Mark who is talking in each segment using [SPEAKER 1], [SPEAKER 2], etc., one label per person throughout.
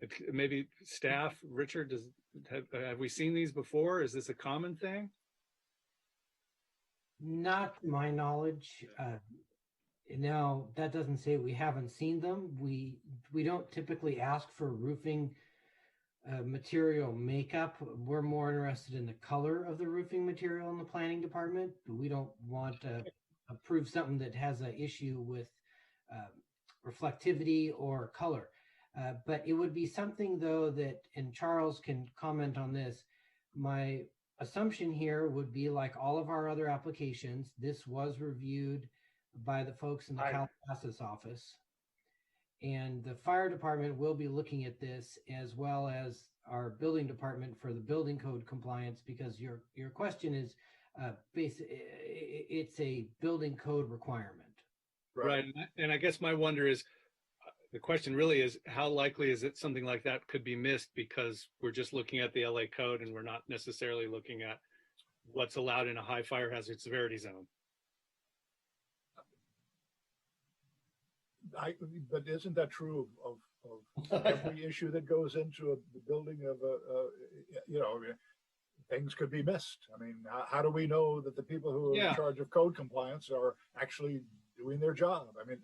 [SPEAKER 1] If maybe staff, Richard, does, have, have we seen these before? Is this a common thing?
[SPEAKER 2] Not to my knowledge. Uh, Now, that doesn't say we haven't seen them. We, we don't typically ask for roofing uh, material makeup. We're more interested in the color of the roofing material in the planning department. We don't want to approve something that has an issue with uh, reflectivity or color. Uh, But it would be something though that, and Charles can comment on this, my assumption here would be like all of our other applications, this was reviewed by the folks in the
[SPEAKER 3] Right.
[SPEAKER 2] Calabasas office. And the fire department will be looking at this as well as our building department for the building code compliance because your, your question is uh, basi- i- i- it's a building code requirement.
[SPEAKER 1] Right. and I- And I guess my wonder is, uh, the question really is, how likely is it something like that could be missed because we're just looking at the LA code and we're not necessarily looking at what's allowed in a high fire hazard severity zone?
[SPEAKER 3] I, but isn't that true of, of every issue that goes into a the building of a, a, you know, things could be missed. I mean, how, how do we know that the people who are
[SPEAKER 1] Yeah.
[SPEAKER 3] in charge of code compliance are actually doing their job? I mean,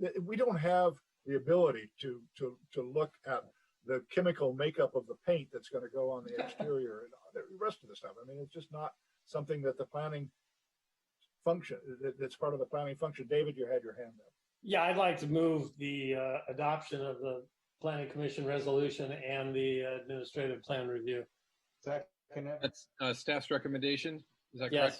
[SPEAKER 3] th- we don't have the ability to, to, to look at the chemical makeup of the paint that's going to go on the exterior and all the rest of the stuff. I mean, it's just not something that the planning function, that, that's part of the planning function. David, you had your hand up.
[SPEAKER 4] Yeah, I'd like to move the uh, adoption of the planning commission resolution and the administrative plan review.
[SPEAKER 5] Second it.
[SPEAKER 6] That's uh, staff's recommendation. Is that correct?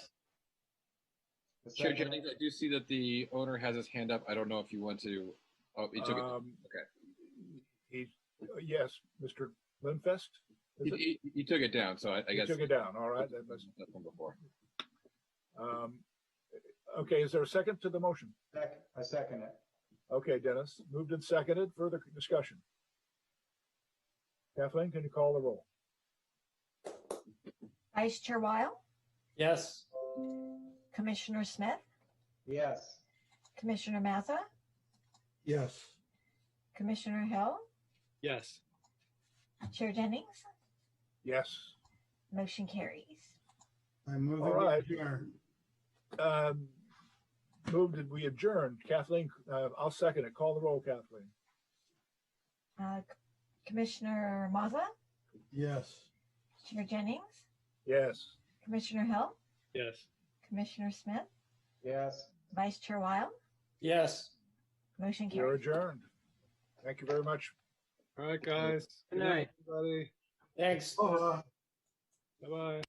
[SPEAKER 4] Yes,
[SPEAKER 6] Chair
[SPEAKER 5] Second
[SPEAKER 6] Jennings,
[SPEAKER 5] it.
[SPEAKER 6] I do see that the owner has his hand up. I don't know if you want to. Oh, he took it.
[SPEAKER 3] Um,
[SPEAKER 6] Okay.
[SPEAKER 3] He, yes, Mr. Lindfest? is it?
[SPEAKER 6] He, he- he took it down, so I, I
[SPEAKER 3] He
[SPEAKER 6] guess.
[SPEAKER 3] took it down, all right. that
[SPEAKER 6] That's
[SPEAKER 3] must-
[SPEAKER 6] one before.
[SPEAKER 3] um, Okay, is there a second to the motion?
[SPEAKER 5] Sec- I second it.
[SPEAKER 3] Okay, Dennis, moved and seconded, further discussion. Kathleen, can you call the roll?
[SPEAKER 7] Vice Chair Wile,
[SPEAKER 4] yes,
[SPEAKER 7] Commissioner Smith,
[SPEAKER 5] Yes.
[SPEAKER 7] Commissioner Mazza,
[SPEAKER 5] Yes.
[SPEAKER 7] Commissioner Hill,
[SPEAKER 1] Yes.
[SPEAKER 7] Chair Jennings,
[SPEAKER 3] Yes.
[SPEAKER 7] motion carries.
[SPEAKER 8] I'm moving.
[SPEAKER 3] All right.
[SPEAKER 8] here.
[SPEAKER 3] Um, Moved and we adjourned. Kathleen, uh, I'll second it. Call the roll, Kathleen.
[SPEAKER 7] Uh, Commissioner Mazza,
[SPEAKER 8] Yes.
[SPEAKER 7] Chair Jennings,
[SPEAKER 3] Yes.
[SPEAKER 7] Commissioner Hill,
[SPEAKER 1] Yes.
[SPEAKER 7] Commissioner Smith,
[SPEAKER 5] Yes.
[SPEAKER 7] Vice Chair Wile,
[SPEAKER 4] yes.
[SPEAKER 7] motion
[SPEAKER 3] You're
[SPEAKER 7] carries.
[SPEAKER 3] adjourned. Thank you very much.
[SPEAKER 1] All right, guys.
[SPEAKER 2] Good night.
[SPEAKER 1] Everybody.
[SPEAKER 3] uh,
[SPEAKER 4] Thanks.
[SPEAKER 5] Oh,
[SPEAKER 1] Bye-bye.